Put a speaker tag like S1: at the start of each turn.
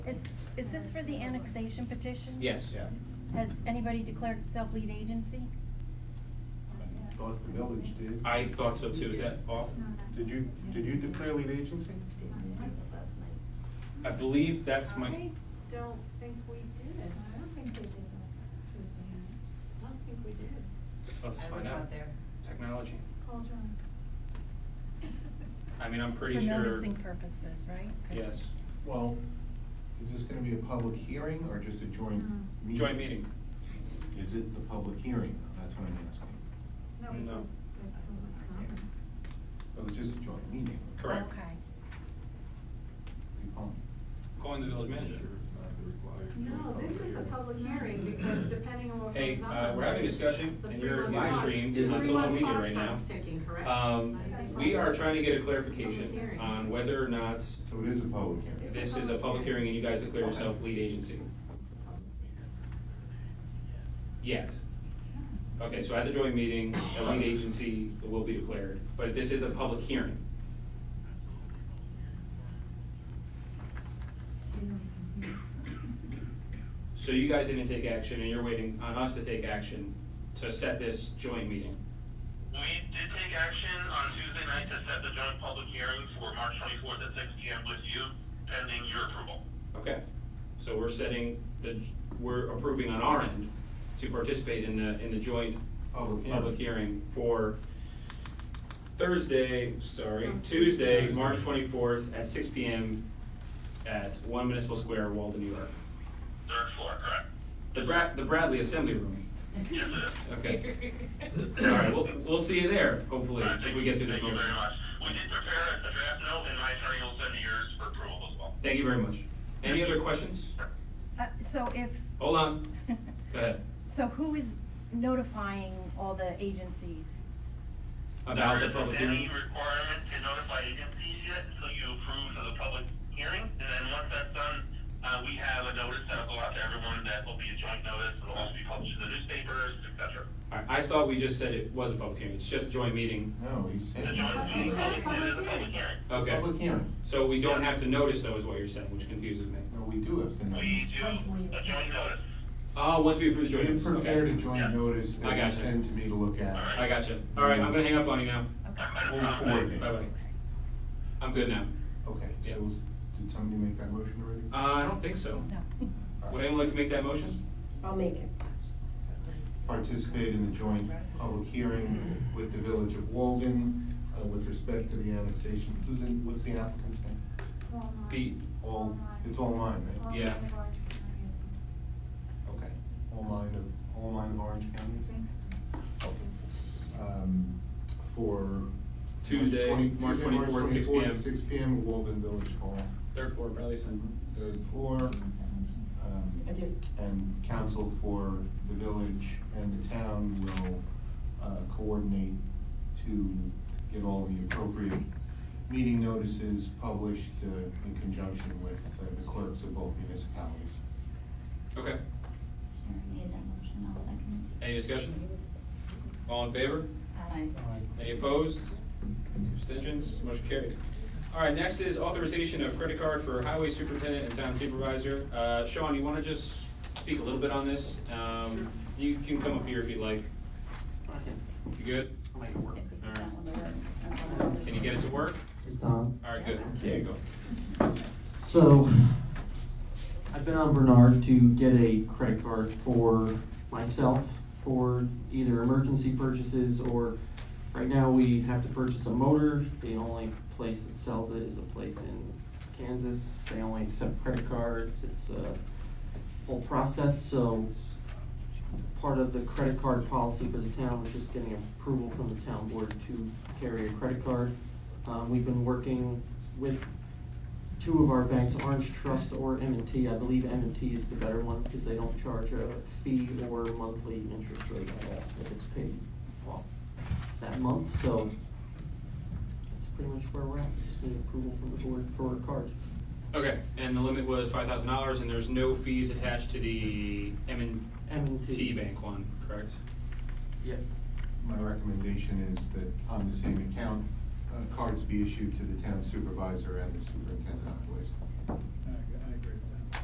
S1: Is, is this for the annexation petition?
S2: Yes.
S3: Yeah.
S1: Has anybody declared itself lead agency?
S4: Thought the village did.
S2: I thought so too, is that off?
S4: Did you, did you declare lead agency?
S2: I believe that's my,
S5: I don't think we did.
S6: I don't think they did last Tuesday night.
S5: I don't think we did.
S2: let's
S7: I was
S2: find
S7: out
S2: out.
S7: there.
S2: Technology.
S6: Call John.
S2: I mean, I'm pretty sure.
S1: For noticing purposes, right? 'Cause-
S2: Yes.
S4: Well, is this gonna be a public hearing or just a joint
S6: No.
S4: meeting?
S2: Joint meeting.
S4: Is it the public hearing? That's what I'm asking.
S6: we did.
S2: No.
S6: There's public comment.
S4: So it's just a joint meeting?
S2: Correct.
S1: Okay.
S4: Be fine.
S2: Calling the village manager.
S5: No, this is a public hearing because depending on what
S2: Hey,
S5: comes up.
S2: uh, we're having a discussion
S5: the
S2: and you're
S5: three-month
S2: live
S5: pause-
S2: streamed
S5: the
S3: on social
S5: three-month
S2: media
S5: pause
S2: right now.
S5: time's taking, correct?
S2: Um, we are trying to get a clarification
S5: Hearing.
S2: on whether or not
S4: So it is a public hearing?
S2: this is a public hearing and you guys declare yourself lead agency. Yet. Okay, so at the joint meeting, a lead agency will be declared, but this is a public hearing.
S6: You know, you can hear.
S2: So you guys didn't take action and you're waiting on us to take action to set this joint meeting.
S8: We did take action on Tuesday night to set the joint public hearing for March twenty-fourth at six P M with you, pending your approval.
S2: Okay, so we're setting the, we're approving on our end to participate in the, in the joint
S4: Public hearing.
S2: public hearing for Thursday, sorry, Tuesday, March twenty-fourth at six P M at One Municipal Square, Walden, New York.
S8: Third floor, correct?
S2: The Brad, the Bradley Assembly Room,
S8: Yes, it is.
S2: okay. Alright, we'll, we'll see you there, hopefully,
S8: All right,
S2: if
S8: Uh, thank
S2: we
S8: you-
S2: get through this
S8: Thank you
S2: motion.
S8: very much. We did prepare a draft note, and my attorney will send yours for approval as well.
S2: Thank you very much. Any other questions?
S1: Uh, so if,
S2: Hold on, go ahead.
S1: so who is notifying all the agencies?
S2: About
S8: There
S2: the public
S8: isn't
S2: hearing?
S8: Any requirement to notify agencies yet, so you approve for the public hearing, and then once that's done, uh, we have a notice that'll go out to everyone that will be a joint notice, it'll also be published in the newspapers, et cetera.
S2: I, I thought we just said it was a public hearing, it's just a joint meeting.
S4: No, he said.
S8: The joint,
S5: That's a public
S8: it is a public
S5: hearing.
S8: hearing.
S2: Okay,
S4: Public hearing.
S2: so we don't have to notice though is what you're saying, which confuses me.
S4: No, we do have to know.
S8: We do a joint notice.
S2: Oh, once we approve the joint
S4: We've
S2: meetings,
S4: prepared a
S2: okay.
S4: joint notice
S2: I
S4: that you
S2: gotcha.
S4: send to me to look at.
S2: I gotcha. All right, I'm gonna hang up on you now.
S1: Okay.
S4: We'll coordinate.
S2: Bye-bye. I'm good now.
S4: Okay,
S2: Yeah.
S4: so was- did somebody make that motion already?
S2: Uh, I don't think so.
S1: No.
S2: Would anyone like to make that motion?
S7: I'll make it.
S4: participate in the joint public hearing with the Village of Walden uh, with respect to the annexation. Who's in, what's the applicant's name?
S6: All mine.
S2: Pete,
S4: All, it's all mine,
S6: All
S4: right?
S2: Yeah.
S6: mine of Orange County.
S4: Okay. All mine of, all mine of Orange County? is it? Um, For.
S2: Tuesday, March
S4: Tuesday,
S2: 24th, 6 p.m.
S4: 24th, Six P M, Walden Village Hall,
S2: third floor, Bradley Sun.
S4: third floor. um,
S7: I do.
S4: And council for the village and the town will uh, coordinate to get all the appropriate meeting notices published uh, in conjunction with uh, the clerks of both municipalities.
S2: Okay,
S9: Made that motion, I'll second
S2: any discussion? All in favor?
S9: it. Aye.
S2: Any opposed? Abstentions? Motion carried. All right, next is authorization of credit card for highway superintendent and town supervisor. Uh, Sean, you wanna just speak a little bit on this? Um, you can come up here if you'd like. You good? All right.
S9: That one, the work, that's all it is.
S2: Can you get it to work?
S10: It's on.
S2: All right, good.
S10: There you
S2: go.
S10: So, I've been on Bernard to get a credit card for myself for either emergency purchases or, right now, we have to purchase a motor. The only place that sells it is a place in Kansas. They only accept credit cards. It's a whole process, so part of the credit card policy for the town was just getting approval from the town board to carry a credit card. Um, we've been working with two of our banks, Orange Trust or m and T. I believe m and T is the better one because they don't charge a fee or monthly interest rate at all if it's paid off that month, so that's pretty much where we're at. Just need approval from the board for a card.
S2: Okay, and the limit was five thousand dollars, and there's no fees attached to the M and
S10: m and
S2: T Bank one, correct?
S10: Yep.
S4: My recommendation is that on the same account, uh, cards be issued to the town supervisor and the superintendent of highways.